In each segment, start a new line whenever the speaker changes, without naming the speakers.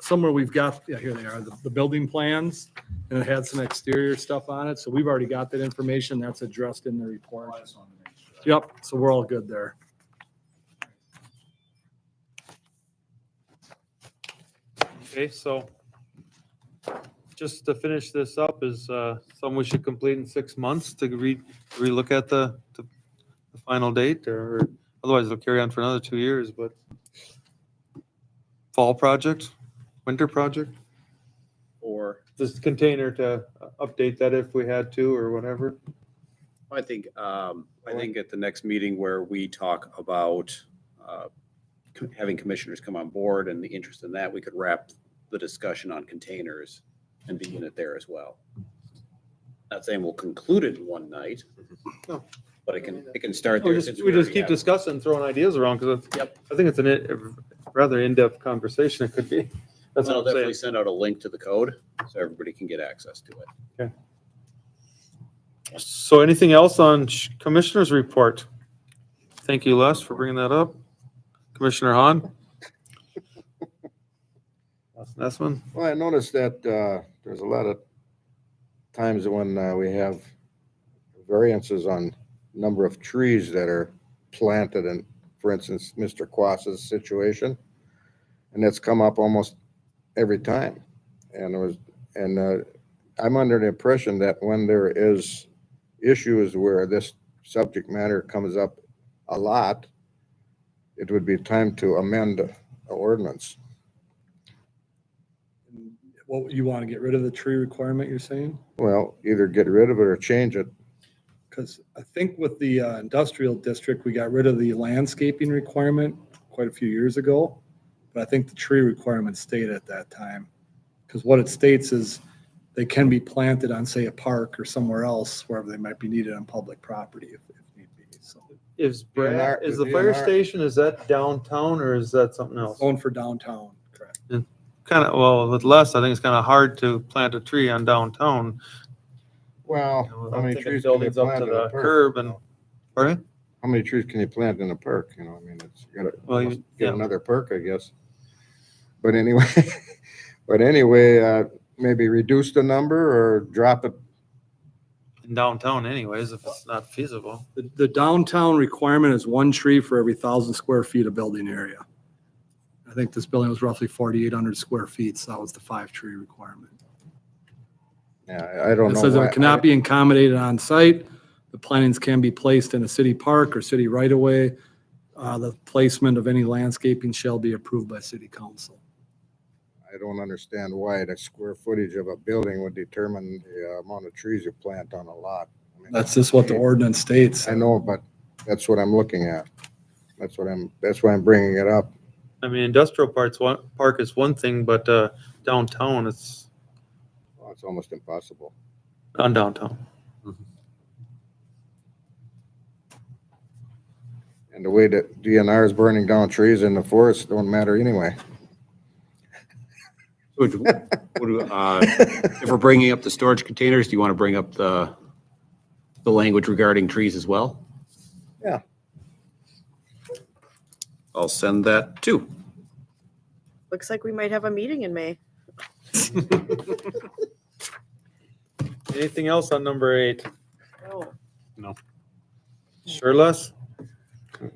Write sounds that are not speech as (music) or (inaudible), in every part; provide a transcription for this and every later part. somewhere we've got, yeah, here they are, the, the building plans, and it had some exterior stuff on it, so we've already got that information, that's addressed in the report.
I just wanted to make sure.
Yep, so we're all good there.
Okay, so just to finish this up is uh, something we should complete in six months to re, relook at the, the the final date or otherwise it'll carry on for another two years, but fall project, winter project,
Or
this container to update that if we had to or whatever.
I think, um, I think at the next meeting where we talk about, uh, co- having commissioners come on board and the interest in that, we could wrap the discussion on containers and begin it there as well. Not saying we'll conclude it in one night, Mm-hmm.
No.
but it can, it can start
We
there.
just,
since
we just
already
keep
have-
discussing, throwing ideas around because I
Yep.
think it's an in- rather in-depth conversation it could be. That's
I'll
what I'm saying.
definitely send out a link to the code so everybody can get access to it.
So anything else on sh- Commissioner's report? Thank you, Les, for bringing that up. Commissioner Hahn? Les Nessman?
Well, I noticed that uh, there's a lot of times when uh, we have variances on number of trees that are planted in, for instance, Mr. Quas's situation. And it's come up almost every time. And it was, and uh, I'm under the impression that when there is issues where this subject matter comes up a lot, it would be time to amend the ordinance.
What, you want to get rid of the tree requirement, you're saying?
Well, either get rid of it or change it.
Because I think with the uh, industrial district, we got rid of the landscaping requirement quite a few years ago. But I think the tree requirement stayed at that time. Because what it states is they can be planted on, say, a park or somewhere else, wherever they might be needed on public property if if need be. So,
Is
DNR
Brad, is the
DNR.
fire station, is that downtown or is that something else?
going for downtown, correct?
Kind of, well, with Les, I think it's kind of hard to plant a tree on downtown.
Well,
you know,
how
I'm
many
thinking
trees can you
Buildings up
plant
to
in a
the
park?
curb and, pardon?
How many trees can you plant in a park? You know, I mean, it's, you gotta,
Well, you-
must
yeah.
get another perk, I guess. But anyway, (laughs) but anyway, uh, maybe reduce the number or drop it.
In downtown anyways, if it's not feasible.
The the downtown requirement is one tree for every thousand square feet of building area. I think this building was roughly 4,800 square feet, so that was the five tree requirement.
Yeah, I- I don't
It
know.
says
why-
it cannot be accommodated on site. The plantings can be placed in a city park or city right-of-way. Uh, The placement of any landscaping shall be approved by city council.
I I don't understand why the square footage of a building would determine the uh, amount of trees you plant on a lot. I mean,
That's just what the ordinance states.
I know, but that's what I'm looking at. That's what I'm, that's why I'm bringing it up.
I mean, industrial parts, one, park is one thing, but uh, downtown, it's
Well, It's almost impossible.
on downtown.
And the way that DNR is burning down trees in the forest don't matter anyway.
Would- would, uh, If we're bringing up the storage containers, do you want to bring up the, the language regarding trees as well?
Yeah.
I'll send that too.
Looks like we might have a meeting in May.
Anything else on number eight?
Oh.
Sure less?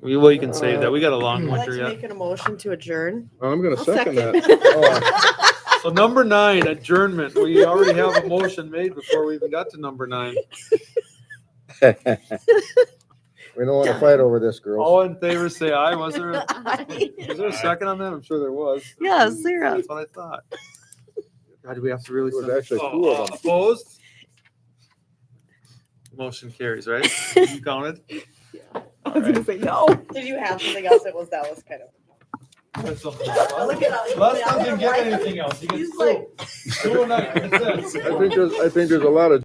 We- Well, you can save that. We got a long
I'd like
winter
to
yet.
make an motion to adjourn.
Well, (laughs) I'm gonna
I'll
second
second.
that.
(laughs)
So number nine, adjournment. We already have a motion made before we even got to number nine.
Oh. (laughs) We don't wanna fight over this, girls.
All in favor, say aye. (laughs) Was there,
(laughs)
a- was there a second on that? I'm sure there was.
Yeah, zero.
That's what I thought. God, do we have to really?
It was
send-
actually
Oh,
two of them.
Opposed? Motion carries, right?
(laughs)
You counted?
I was gonna say no. Did you have something else that was, that was kind of.
That's something.
Look at all-
Les doesn't get anything else. He gets
He's
two.
like-
Two and nine. That's it.
(laughs)
I think there's, I think there's a lot of